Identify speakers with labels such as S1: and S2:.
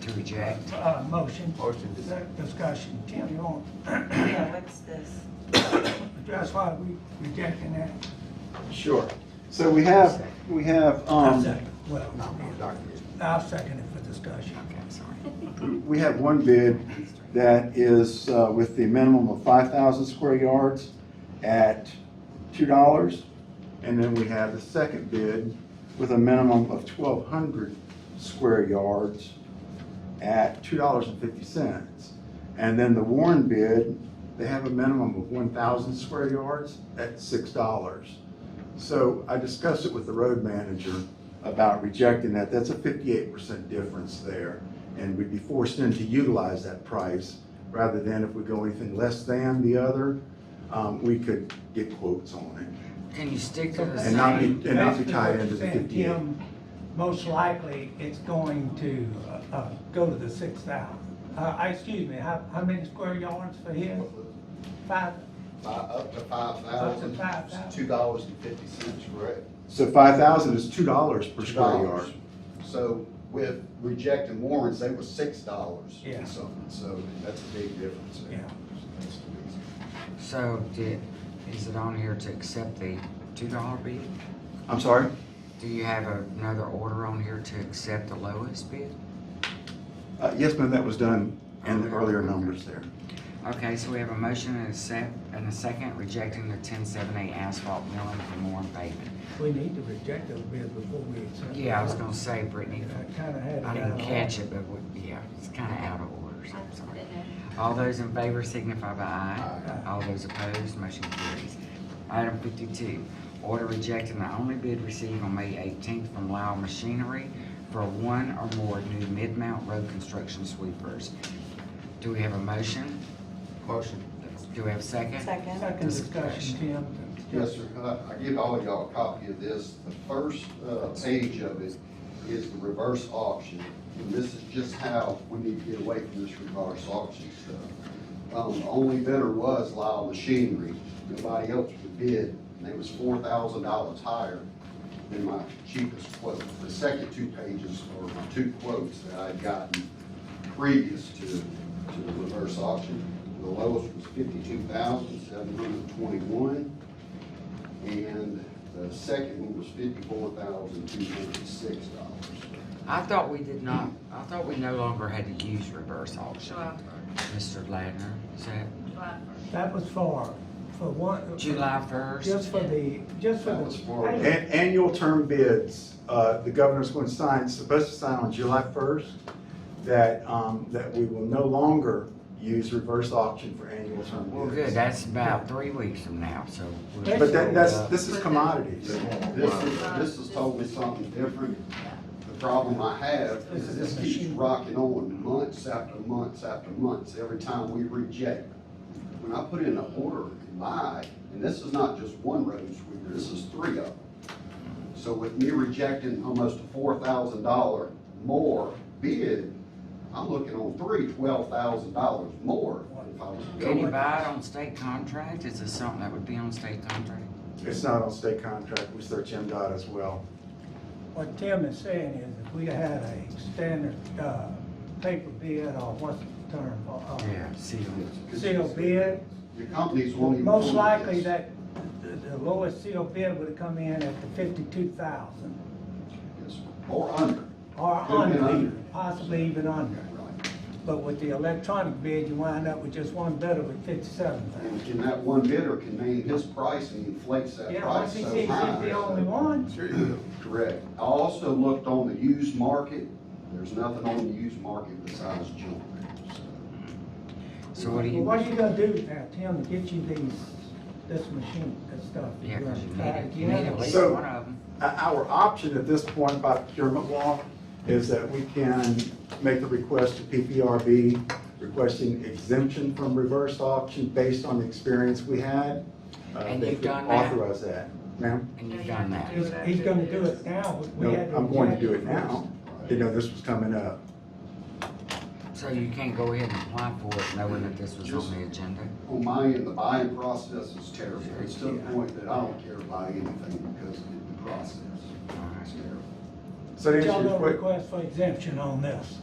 S1: to reject.
S2: Uh, motion.
S1: Motion to-
S2: Sec- Discussion, Tim, you want,
S3: Yeah, what's this?
S2: that's why we rejecting that.
S4: Sure. So we have, we have,
S2: I'll
S4: um,
S2: second. Well,
S1: No, no, Dr. Is-
S2: I'll second it for discussion.
S1: Okay, sorry.
S4: we have one bid that is uh, with the minimum of five thousand square yards at two dollars. And then we have the second bid with a minimum of twelve hundred square yards at two dollars and fifty cents. And then the Warren bid, they have a minimum of one thousand square yards at six dollars. So I discussed it with the road manager about rejecting that. That's a fifty-eight percent difference there. And we'd be forced in to utilize that price rather than if we go anything less than the other, um, we could get quotes on
S1: And you stick to the
S4: And not be-
S1: same,
S4: and not be
S2: Basically,
S4: tied
S2: what
S4: into the
S2: you're saying,
S4: 58.
S2: Tim, Most likely, it's going to, uh, uh, go to the six thousand. Uh, I- excuse me, how, how many square yards for here? Five,
S5: Five, up to five
S2: Up to
S5: thousand.
S2: five thousand.
S5: Two dollars and fifty cents, correct?
S4: it. So five thousand is two dollars per square
S5: $2.
S4: yard.
S5: So with rejecting warrants, they were six dollars
S2: Yeah.
S5: and something, so that's a big difference. there.
S2: Yeah.
S5: That's the reason.
S1: so did, is it on here to accept the two dollar bid?
S4: I'm sorry?
S1: Do you have another order on here to accept the lowest bid?
S4: Uh, yes, ma'am, that was done in the earlier numbers there.
S1: Okay, so we have a motion and a sec, and a second rejecting the ten seven eight asphalt milling for more pavement.
S2: we need to reject those bids before we accept.
S1: Yeah, I was
S2: them.
S1: gonna say, Brittany,
S2: I kinda had.
S1: I
S2: down
S1: didn't
S2: on-
S1: catch it, but we- yeah, it's kinda out of order, so I'm sorry.
S6: Didn't know.
S1: All those in favor signify by aye.
S2: Aye.
S1: All those opposed, motion carries. Item fifty-two, order rejecting the only bid received on May eighteenth from Lyle Machinery for one or more new mid-mount road construction sweepers. Do we have a motion?
S5: Motion.
S1: Do we have a second?
S3: Second?
S2: Second discussion, Tim.
S5: Yes, sir. I, I give all of y'all a copy of this. The first, uh, page of it is the reverse auction. And this is just how we need to get away from this reverse auction stuff. Um, the only bidder was Lyle Machinery. Nobody else would bid, and it was four thousand dollars higher than my cheapest quote. The second two pages are my two quotes that I'd gotten previous to, to the reverse auction. The lowest was fifty-two thousand, seven hundred twenty-one. And the second one was fifty-four thousand, two hundred and six dollars.
S1: I thought we did not, I thought we no longer had to use reverse auction.
S6: July first.
S1: Mr. Ladner, is that
S6: July first.
S2: That was for, for one.
S1: July first?
S2: Just for the, just for
S5: That was for-
S2: the.
S4: An- Annual term bids, uh, the governor's going to sign, supposed to sign on July 1st, that, um, that we will no longer use reverse auction for annual term
S1: Well, good,
S4: bids.
S1: that's about three weeks from now, so. we'll-
S4: But that, that's,
S1: Uh,
S4: this is commodities.
S5: This is, this is totally something different. The problem I have is this keeps rocking on months after months after months, every time we reject. When I put in an order in my, and this is not just one road sweeper, this is three of them. So with me rejecting almost a four thousand dollar more bid, I'm looking on three twelve thousand dollars more if I was to go
S1: Can you
S5: with
S1: buy
S5: this.
S1: it on state contract? Is this something that would be on state contract?
S4: It's not on state contract, we search MDOT as well.
S2: What Tim is saying is if we had a standard, uh, paper bid or what's the term? for, uh,
S1: Yeah, see,
S2: Sealed bid,
S5: Your companies won't even.
S2: most
S5: want
S2: likely
S5: this.
S2: that the- the lowest sealed bid would have come in at the fifty-two thousand
S5: Yes, sir. Or under.
S2: or
S5: Could have been
S2: under,
S5: under.
S2: even, possibly even under.
S5: Right.
S2: But with the electronic bid, you wind up with just one bidder with fifty-seven thousand.
S5: And and that one bidder can name his price and inflates that
S2: Yeah,
S5: price so
S2: RCC is
S5: high.
S2: the only one.
S5: Correct. I also looked on the used market. There's nothing on the used market besides junk.
S1: so what do
S2: Well, what
S1: you,
S2: are you gonna do now, Tim, to get you these, this machine, this stuff?
S1: yeah,
S2: You're
S1: 'cause
S2: gonna
S1: you need
S2: try
S1: it, you
S2: again?
S1: need at least
S4: So-
S1: one of them.
S4: O- Uh, Our option at this point by procurement law is that we can make the request to PPRB requesting exemption from reverse auction based on the experience we had. Uh,
S1: And
S4: they
S1: you've
S4: could
S1: done that?
S4: Authorize that. Ma'am,
S1: And you've done that.
S2: He's, he's gonna do it now. We
S4: no,
S2: had to
S4: I'm going to
S2: reject
S4: do it now. You know, this was coming up.
S1: So you can't go ahead and apply for it knowing that this was on the agenda?
S5: On my end, the buying process is terrible. It's to the point that I don't care about anything because of the process.
S1: All right.
S5: It's terrible.
S4: So to
S2: Y'all
S4: answer your
S2: don't
S4: quick,
S2: request for exemption on this.